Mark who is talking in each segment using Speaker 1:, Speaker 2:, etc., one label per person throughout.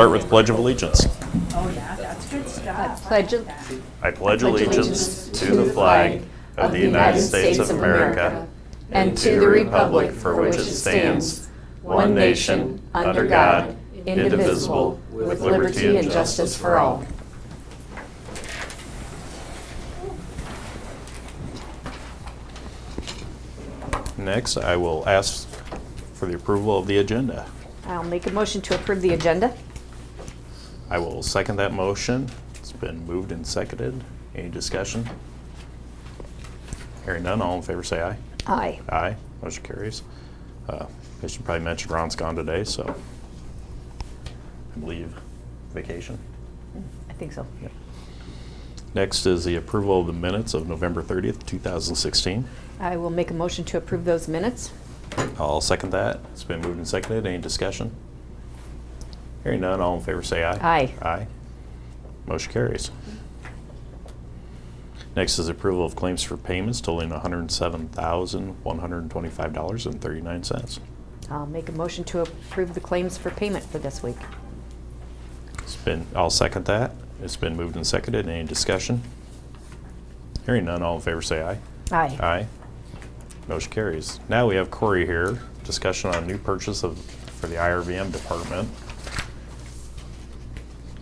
Speaker 1: Start with Pledge of Allegiance.
Speaker 2: Oh, yeah, that's good stuff.
Speaker 3: I
Speaker 2: like
Speaker 3: pledge al-
Speaker 2: that.
Speaker 1: I pledge allegiance to the flag of the United States of America and to the republic for which it stands, one nation, under God, indivisible, with liberty and justice for all. Next, I will ask for the approval of the agenda.
Speaker 3: I'll make a motion to approve the agenda.
Speaker 1: I will second that motion. It's been moved and seconded. Any discussion? Hearing none, all in favor say aye.
Speaker 3: Aye.
Speaker 1: Aye, motion carries. Uh, I should probably mention Ron's gone today, so I believe vacation.
Speaker 3: I think so.
Speaker 1: Yeah. Next is the approval of the minutes of November 30th, 2016.
Speaker 3: I will make a motion to approve those minutes.
Speaker 1: I'll second that. It's been moved and seconded. Any discussion? Hearing none, all in favor say aye.
Speaker 3: Aye.
Speaker 1: Aye. Motion carries. Next is approval of claims for payments totaling $107,125.39.
Speaker 3: I'll make a motion to approve the claims for payment for this week.
Speaker 1: It's been, I'll second that. It's been moved and seconded. Any discussion? Hearing none, all in favor say aye.
Speaker 3: Aye.
Speaker 1: Aye. Motion carries. Now we have Corey here, discussion on new purchase of, for the IRVM department.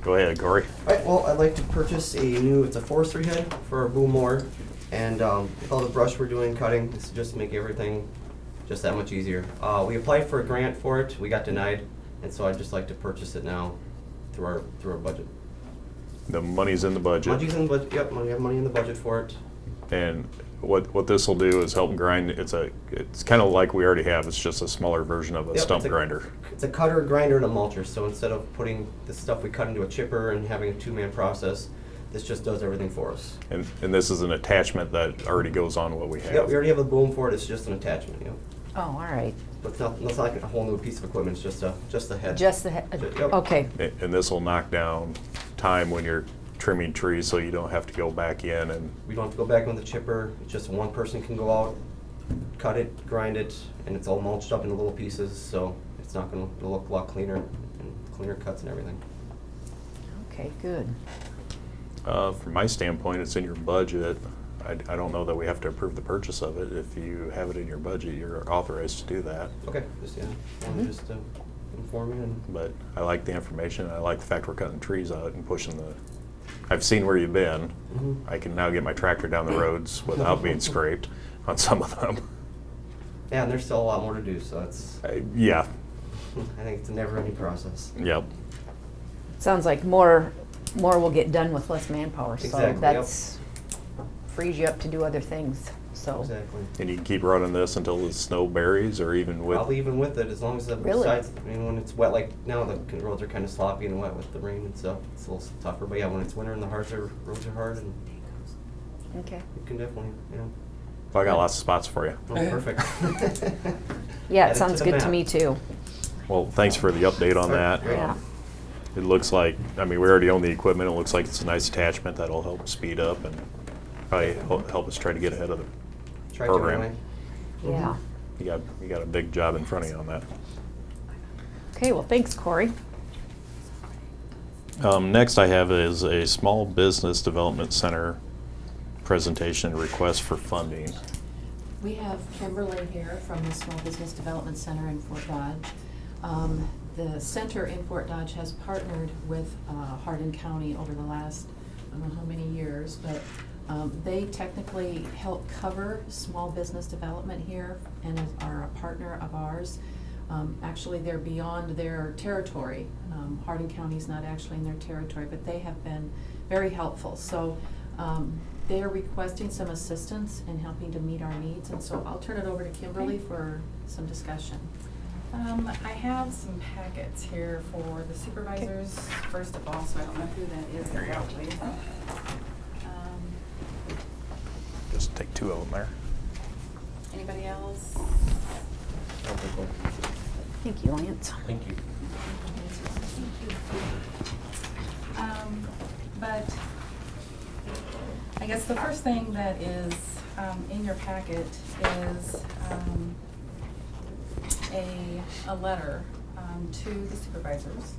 Speaker 1: Go ahead, Corey.
Speaker 4: Alright, well, I'd like to purchase a new, it's a forestry head for our boom mower, and, um, with all the brush we're doing cutting, this is just to make everything just that much easier. Uh, we applied for a grant for it, we got denied, and so I'd just like to purchase it now through our, through our budget.
Speaker 1: The money's in the
Speaker 4: Money's
Speaker 1: budget.
Speaker 4: in the budget, yep, money, have money in the budget for it.
Speaker 1: And what, what this'll do is help grind, it's a, it's kinda like we already have, it's just a smaller version of
Speaker 4: Yep,
Speaker 1: a
Speaker 4: it's
Speaker 1: stump grinder.
Speaker 4: It's a cutter, grinder, and a mulcher, so instead of putting the stuff we cut into a chipper and having a two-man process, this just does everything for us.
Speaker 1: And, and this is an attachment that already goes on what we have.
Speaker 4: Yep, we already have a boom for it, it's just an attachment, yep.
Speaker 3: Oh, all right.
Speaker 4: But it's not, it's not like a whole new piece of equipment, it's just a, just the head.
Speaker 3: Just the, he-
Speaker 4: Yep.
Speaker 3: okay,
Speaker 1: A- And this'll knock down time when you're trimming trees, so you don't have to go back in and
Speaker 4: We don't have to go back on the chipper, it's just one person can go out, cut it, grind it, and it's all mulched up into little pieces, so it's not gonna it'll look a lot cleaner, and cleaner cuts and everything.
Speaker 3: okay, good.
Speaker 1: Uh, From my standpoint, it's in your budget. I, I don't know that we have to approve the purchase of it. If you have it in your budget, you're authorized to do that.
Speaker 4: Okay, just, yeah,
Speaker 3: Mm-hmm.
Speaker 4: wanted just to inform you and.
Speaker 1: But I like the information, I like the fact we're cutting trees out and pushing the, I've seen where you've been.
Speaker 4: Mhm.
Speaker 1: I can now get my tractor down the roads without being scraped on some of them.
Speaker 4: Yeah, and there's still a lot more to do, so it's,
Speaker 1: I- Yeah,
Speaker 4: I think it's a never-ending process.
Speaker 1: yep.
Speaker 3: Sounds like more, more will get done with less manpower,
Speaker 4: Exactly,
Speaker 3: so
Speaker 4: yep.
Speaker 3: that's, frees you up to do other things, so.
Speaker 4: Exactly.
Speaker 1: And you can keep running this until the snow buries or even with.
Speaker 4: Probably even with it, as long as the
Speaker 3: Really?
Speaker 4: sides, I mean, when it's wet, like now the c- roads are kind of sloppy and wet with the rain and stuff, it's a little tougher, but yeah, when it's winter and the hards are, roads are hard, and
Speaker 3: Okay.
Speaker 4: you can definitely, you know,
Speaker 1: I got lots of spots for you.
Speaker 4: oh, perfect.
Speaker 3: Yeah,
Speaker 4: Add
Speaker 3: it
Speaker 4: to
Speaker 3: sounds
Speaker 4: the
Speaker 3: good to
Speaker 4: map.
Speaker 3: me too.
Speaker 1: Well, thanks for the update on that.
Speaker 4: Sure.
Speaker 3: Yeah.
Speaker 1: It looks like, I mean, we already own the equipment, it looks like it's a nice attachment that'll help speed up and probably hel- help us try to get ahead of the
Speaker 4: Try to
Speaker 1: program.
Speaker 4: anyway.
Speaker 3: Yeah.
Speaker 4: Mm-hmm.
Speaker 1: You got, you got a big job in front of you on that.
Speaker 3: Okay, well, thanks, Corey.
Speaker 1: Um, next I have is a small business development center presentation request for funding.
Speaker 5: We have Kimberly here from the Small Business Development Center in Fort Dodge. Um, The center in Fort Dodge has partnered with uh, Hardin County over the last, I don't know how many years, but um, they technically help cover small business development here and is- are a partner of ours. Um, Actually, they're beyond their territory. Um, Hardin County's not actually in their territory, but they have been very helpful. So um, they're requesting some assistance in helping to meet our needs, and so I'll turn it over to Kimberly for some discussion.
Speaker 6: Um, I have some packets here for the supervisors, first of all, so I don't know who that is exactly. Um,
Speaker 1: Just take two of them there.
Speaker 6: Anybody else?
Speaker 3: Thank you, Lance.
Speaker 4: Thank you.
Speaker 6: Um, but I guess the first thing that is, um, in your packet is, um, a, a letter, um, to the supervisors.